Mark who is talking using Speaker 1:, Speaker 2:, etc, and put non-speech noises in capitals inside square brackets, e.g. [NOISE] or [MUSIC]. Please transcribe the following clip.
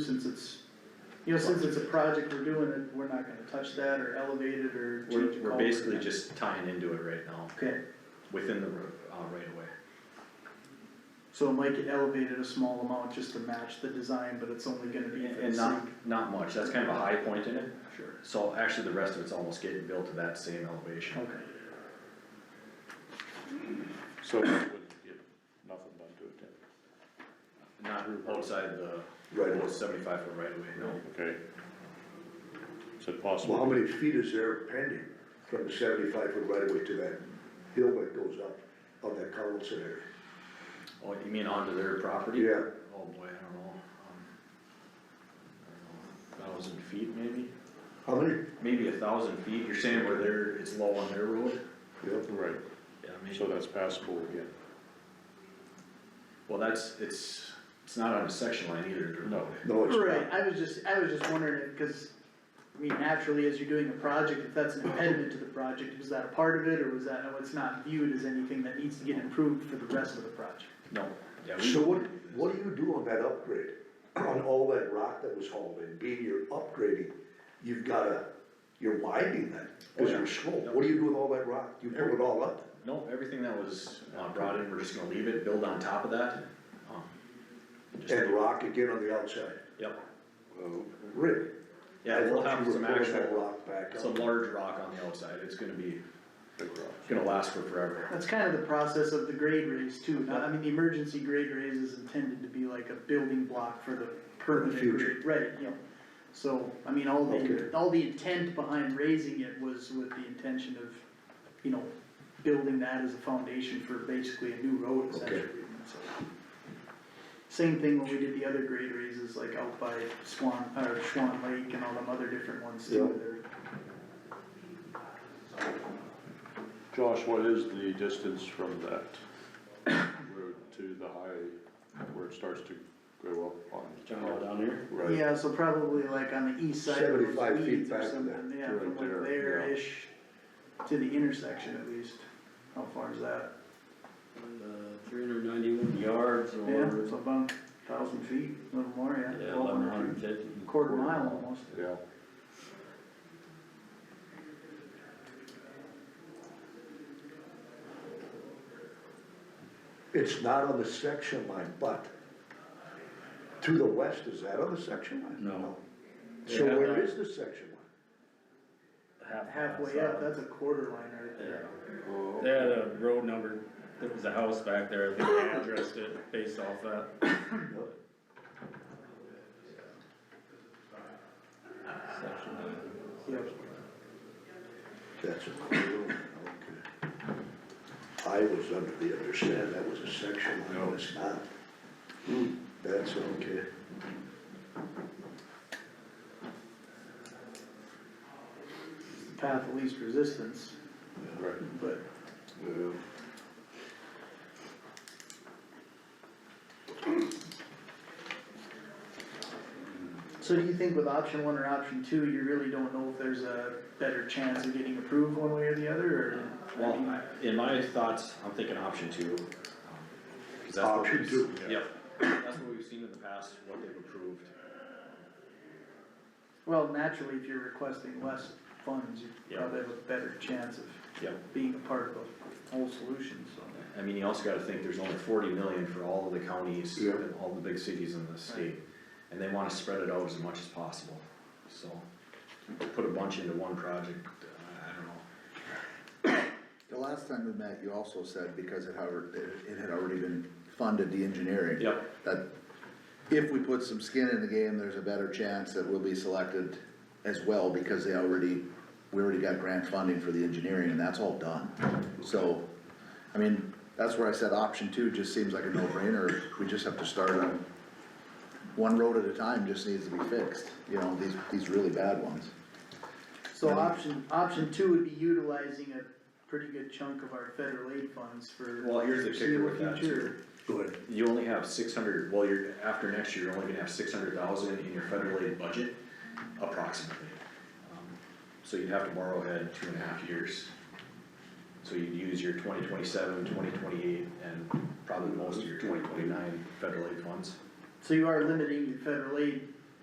Speaker 1: since it's, you know, since it's a project we're doing, it, we're not gonna touch that or elevate it or change
Speaker 2: We're,
Speaker 1: the
Speaker 2: we're
Speaker 1: culvert.
Speaker 2: basically just tying into it right now,
Speaker 1: Okay,
Speaker 2: within the, ro- uh, right away.
Speaker 1: so it might get elevated a small amount just to match the design, but it's only gonna be. for the
Speaker 2: And not,
Speaker 1: sake-
Speaker 2: not much, that's kind of a high point in it,
Speaker 1: Sure.
Speaker 2: so actually the rest of it's almost getting built to that same elevation.
Speaker 1: Okay,
Speaker 3: So we wouldn't get nothing done to it then?
Speaker 2: Not outside the
Speaker 4: Right away.
Speaker 2: seventy-five foot right away, no.
Speaker 3: Okay. Is it
Speaker 4: Well, how
Speaker 3: possible?
Speaker 4: many feet is there pending from the seventy-five foot right of way to that hill that goes up on that Carlson area?
Speaker 2: Oh, you mean onto their property?
Speaker 4: Yeah.
Speaker 2: Oh boy, I don't know, um, I don't know, thousand feet maybe?
Speaker 4: How many?
Speaker 2: Maybe a thousand feet, you're saying where they're, it's low on their road?
Speaker 4: Yeah.
Speaker 3: Right,
Speaker 2: Yeah, maybe.
Speaker 3: so that's passable again.
Speaker 2: Well, that's, it's, it's not on a section line either. they're-
Speaker 3: No.
Speaker 4: No, it's
Speaker 1: right,
Speaker 4: not.
Speaker 1: I was just, I was just wondering, it cause, I mean, naturally, as you're doing a project, if that's an impediment to the project, was that a part of it, or was that, no, it's not viewed as anything that needs to get improved for the rest of the project?
Speaker 2: No, yeah. we-
Speaker 4: So what, what do you do on that upgrade? [CLEARS THROAT] On all that rock that was hauled in, being you're upgrading, you've gotta, you're widening that,
Speaker 2: Oh,
Speaker 4: cause
Speaker 2: yeah.
Speaker 4: you're slow. What do you do with all that rock? You pull it all up?
Speaker 2: No, everything that was uh, brought in, we're just gonna leave it, build on top of that. um, just-
Speaker 4: And rock again on the outside?
Speaker 2: Yep,
Speaker 4: Really?
Speaker 2: yeah,
Speaker 4: I
Speaker 2: we'll
Speaker 4: thought
Speaker 2: have
Speaker 4: you were
Speaker 2: some
Speaker 4: pulling that
Speaker 2: actual,
Speaker 4: Rock back up.
Speaker 2: some large rock on the outside, it's gonna be,
Speaker 3: Big rock.
Speaker 2: it's gonna last for forever.
Speaker 1: That's kind of the process of the grade raise too, Now, I mean, the emergency grade raise is intended to be like a building block for the permanent
Speaker 4: Future.
Speaker 1: grade, right, you know. So, I mean, all the,
Speaker 4: Okay.
Speaker 1: all the intent behind raising it was with the intention of, you know, building that as a foundation for basically a new road essentially, so. Same thing when we did the other grade raises, like out by Swan, or Swan Lake and all them other different ones
Speaker 4: Yeah.
Speaker 1: too,
Speaker 3: Josh, what is the distance from that road to the high, where it starts to go up on?
Speaker 2: down here?
Speaker 1: they're,
Speaker 3: Right,
Speaker 1: yeah, so probably like on the east side of those
Speaker 4: 75 feet
Speaker 1: weeds or
Speaker 4: back to
Speaker 1: something,
Speaker 4: that.
Speaker 1: yeah, from
Speaker 3: Right there,
Speaker 1: like there-ish to the intersection at least, how far is that?
Speaker 5: Three hundred ninety-one yards
Speaker 1: Yeah,
Speaker 5: or,
Speaker 1: it's about thousand feet, a little more, yeah. 1200
Speaker 5: yeah, eleven hundred
Speaker 1: feet.
Speaker 5: fifty.
Speaker 1: Quarter mile almost,
Speaker 3: yeah.
Speaker 4: It's not on the section line, but to the west, is that on the section line?
Speaker 5: No.
Speaker 4: So
Speaker 5: Yeah.
Speaker 4: where is the section line?
Speaker 1: halfway up, that's a quarter line right
Speaker 5: Yeah,
Speaker 1: there.
Speaker 3: Oh,
Speaker 5: Yeah, the road number, there was a house back there, I think they addressed it based off that. section.
Speaker 1: Yep.
Speaker 4: That's a quarter line, okay. I was under the understanding that was a section line, and it's not. Hmm, That's okay.
Speaker 1: Path of least resistance,
Speaker 3: Right,
Speaker 1: but So do you think with option one or option two, you really don't know if there's a better chance of getting approved one way or the other, or?
Speaker 2: Well, I- in my thoughts, I'm thinking option two. um, 'cause that's what
Speaker 4: Option
Speaker 2: we've-
Speaker 4: two.
Speaker 2: Yep, that's what we've seen in the past, what they've approved.
Speaker 1: Well, naturally, if you're requesting less funds, you
Speaker 2: Yeah.
Speaker 1: probably have a better chance of
Speaker 2: Yep,
Speaker 1: being a part of a whole solution, so.
Speaker 2: I mean, you also gotta think there's only forty million for all of the counties,
Speaker 4: Yeah.
Speaker 2: and all the big cities in the state. And they wanna spread it out as much as possible, so, put a bunch into one project, uh, I- I don't know.
Speaker 6: The last time we met, you also said because it had, it had already been funded, the engineering.
Speaker 2: Yep.
Speaker 6: That if we put some skin in the game, there's a better chance that we'll be selected as well because they already, we already got grant funding for the engineering and that's all done. So, I mean, that's where I said option two just seems like a no-brainer. We just have to start on, one road at a time just needs to be fixed, you know, these, these really bad ones.
Speaker 1: So option, option two would be utilizing a pretty good chunk of our federal aid funds for.
Speaker 2: Well, here's the kicker with
Speaker 1: foreseeable
Speaker 2: that,
Speaker 1: future.
Speaker 2: too.
Speaker 4: Go ahead.
Speaker 2: You only have six hundred, well, you're, after next year, you're only gonna have six hundred thousand in your federal aid budget, approximately. Um, So you'd have to borrow ahead two and a half years. So you'd use your 2027, 2028, and probably most of your twenty twenty-nine federal aid funds.
Speaker 1: So you are limiting your federal aid